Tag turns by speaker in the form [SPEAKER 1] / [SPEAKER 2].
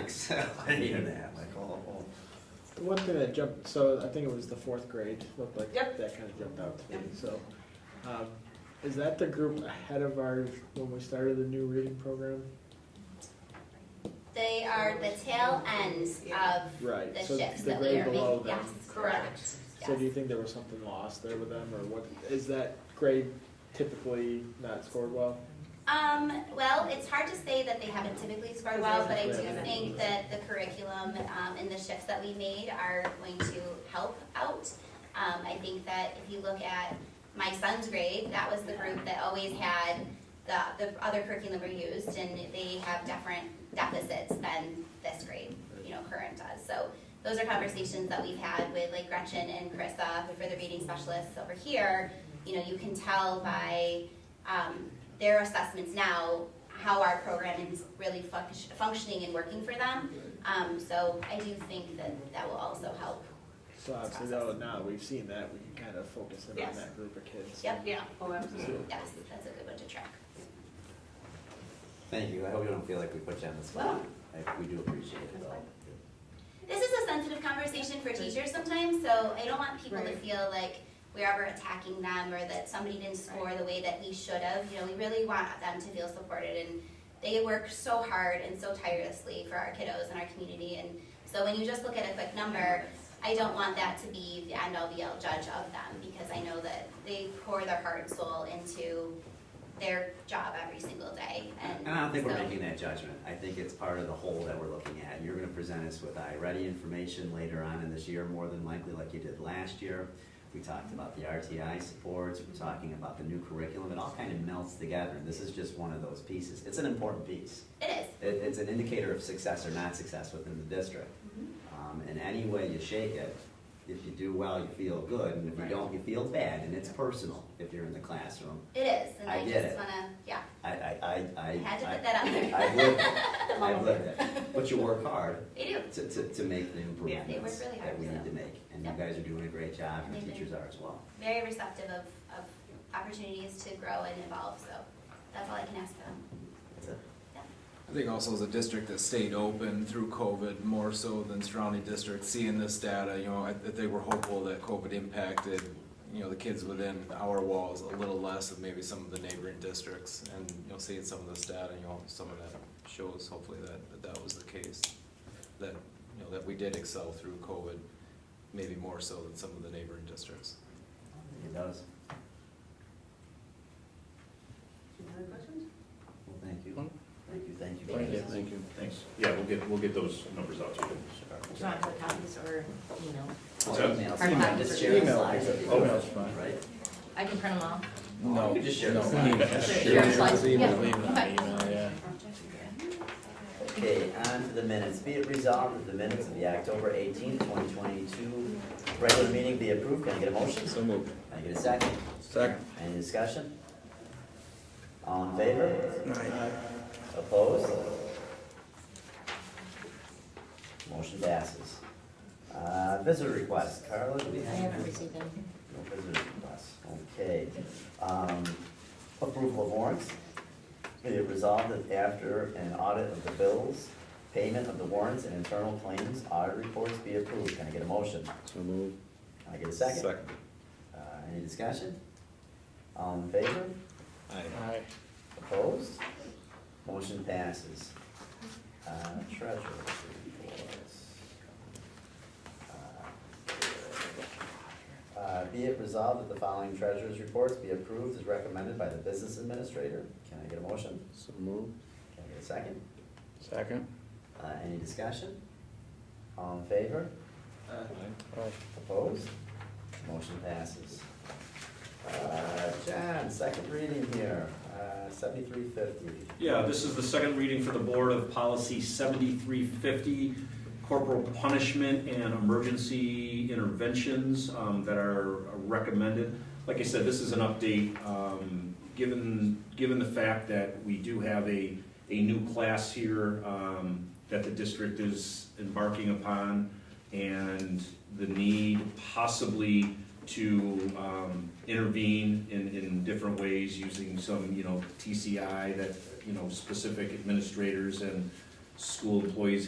[SPEAKER 1] excel any of that, like, oh, oh.
[SPEAKER 2] The one thing that jumped, so I think it was the fourth grade, looked like
[SPEAKER 3] Yep.
[SPEAKER 2] that kind of jumped out to me,
[SPEAKER 3] Yep.
[SPEAKER 2] so. um, Is that the group ahead of ours when we started the new reading program?
[SPEAKER 4] They are the tail ends
[SPEAKER 3] Yeah.
[SPEAKER 4] of
[SPEAKER 2] Right,
[SPEAKER 4] the
[SPEAKER 2] so
[SPEAKER 4] shifts
[SPEAKER 2] the
[SPEAKER 4] that we
[SPEAKER 2] grade
[SPEAKER 4] are making,
[SPEAKER 2] below them.
[SPEAKER 4] yes.
[SPEAKER 3] Correct.
[SPEAKER 2] So do you
[SPEAKER 4] Yes.
[SPEAKER 2] think there was something lost there with them, or what, is that grade typically not scored well?
[SPEAKER 4] Um, well, it's hard to say that they haven't typically scored well, but I do
[SPEAKER 2] Yeah.
[SPEAKER 4] think that the curriculum, um, and the shifts that we made are going to help out. Um, I think that if you look at my son's grade, that was the group that always had the, the other curriculum we used, and they have different deficits than this grade, you know, current does. So those are conversations that we've had with like Gretchen and Carissa, who are the reading specialists over here. You know, you can tell by, um, their assessments now, how our program is really func- functioning and working for them. Um, so I do think that that will also help.
[SPEAKER 2] So obviously, though, now that we've seen that, we can kind of focus in on
[SPEAKER 3] Yes.
[SPEAKER 2] that group of kids.
[SPEAKER 4] Yep,
[SPEAKER 3] Yeah, oh, absolutely.
[SPEAKER 4] yes, that's a good one to track.
[SPEAKER 1] Thank you, I hope you don't feel like we put you on the spot, like, we do appreciate it though.
[SPEAKER 4] This is a sensitive conversation for teachers sometimes, so I don't want people to
[SPEAKER 3] Right.
[SPEAKER 4] feel like we're ever attacking them or that somebody didn't score the way that we should have. You know, we really want them to feel supported and they work so hard and so tirelessly for our kiddos and our community. And so when you just look at a quick number, I don't want that to be the end all be all judge of them because I know that they pour their heart and soul into their job every single day. And,
[SPEAKER 1] And I don't think we're
[SPEAKER 4] so-
[SPEAKER 1] making that judgment, I think it's part of the whole that we're looking at. You're gonna present us with iReady information later on in this year, more than likely like you did last year. We talked about the RTI supports, we're talking about the new curriculum, it all kind of melts together, and this is just one of those pieces. It's an important piece.
[SPEAKER 4] It is.
[SPEAKER 1] It, it's an indicator of success or not success within the district. Um, and any way you shake it, if you do well, you feel good, and if you
[SPEAKER 3] Right.
[SPEAKER 1] don't, you feel bad, and it's personal if you're in the classroom.
[SPEAKER 4] It is. And
[SPEAKER 1] I
[SPEAKER 4] I
[SPEAKER 1] get
[SPEAKER 4] just
[SPEAKER 1] it.
[SPEAKER 4] wanna, yeah.
[SPEAKER 1] I, I, I, I.
[SPEAKER 4] I had to
[SPEAKER 1] I-
[SPEAKER 4] put that out there.
[SPEAKER 1] I've lived, it. I've lived it, but you work hard
[SPEAKER 4] They do.
[SPEAKER 1] to, to, to make the
[SPEAKER 4] they work
[SPEAKER 1] improvements
[SPEAKER 4] really
[SPEAKER 1] that
[SPEAKER 4] hard,
[SPEAKER 1] we
[SPEAKER 4] so.
[SPEAKER 1] need to make, and you
[SPEAKER 4] Yep.
[SPEAKER 1] guys are doing a great job, and
[SPEAKER 4] They
[SPEAKER 1] the
[SPEAKER 4] do.
[SPEAKER 1] teachers are as well.
[SPEAKER 4] Very receptive of, of opportunities to grow and evolve, so that's all I can ask for them.
[SPEAKER 1] That's it.
[SPEAKER 5] I think also as a district that stayed open through COVID more so than surrounding districts, seeing this data, you know, I, I think we're hopeful that COVID impacted, you know, the kids within our walls a little less than maybe some of the neighboring districts. And, you know, seeing some of this data, you know, some of that shows hopefully that, that that was the case. That, you know, that we did excel through COVID, maybe more so than some of the neighboring districts.
[SPEAKER 1] It does.
[SPEAKER 3] Any other questions?
[SPEAKER 1] Well, thank you. Thank you, thank you.
[SPEAKER 6] Thank you.
[SPEAKER 1] Thank you.
[SPEAKER 6] Thanks. Yeah, we'll get, we'll get those numbers out to you.
[SPEAKER 7] Do you want to put copies or, you know,
[SPEAKER 1] Emails,
[SPEAKER 7] Hard copy.
[SPEAKER 1] just share the
[SPEAKER 7] Email.
[SPEAKER 1] slides if you
[SPEAKER 6] Oh,
[SPEAKER 1] want,
[SPEAKER 6] that's fine.
[SPEAKER 1] Right?
[SPEAKER 7] I can print them off?
[SPEAKER 5] No,
[SPEAKER 1] Just share the slides.
[SPEAKER 7] Share the slides, yeah. Okay.
[SPEAKER 1] Okay, on to the minutes. Be it resolved that the minutes of the October eighteenth, twenty twenty-two regular meeting be approved. Can I get a motion? Can
[SPEAKER 5] moved.
[SPEAKER 1] I get a second?
[SPEAKER 5] Second.
[SPEAKER 1] Any discussion? All in favor? Opposed? Motion passes. Uh, visitor request. Carla, do we
[SPEAKER 7] I
[SPEAKER 1] have?
[SPEAKER 7] haven't received them.
[SPEAKER 1] No visitor requests, okay. Um, Approval of warrants. Be it resolved that after an audit of the bills, payment of the warrants and internal claims, audit reports be approved. Can I get a motion?
[SPEAKER 5] So moved.
[SPEAKER 1] Can I get a second? Uh, Any discussion? All in favor?
[SPEAKER 5] Aye.
[SPEAKER 1] Opposed? Motion passes. Uh, Treasurer's reports. Uh, Be it resolved that the following treasurer's reports be approved as recommended by the business administrator. Can I get a motion?
[SPEAKER 6] So moved.
[SPEAKER 1] Can I get a second?
[SPEAKER 6] Second.
[SPEAKER 1] Uh, Any discussion? All in favor?
[SPEAKER 2] Uh,
[SPEAKER 1] Opposed? Motion passes. Uh, John, second reading here, Uh, seventy-three fifty.
[SPEAKER 8] Yeah, this is the second reading for the Board of Policy 7350, corporal punishment and emergency interventions um, that are recommended. Like I said, this is an update, um, given, given the fact that we do have a, a new class here um, that the district is embarking upon, and the need possibly to um, intervene in, in different ways using some, you know, TCI that, you know, specific administrators and school employees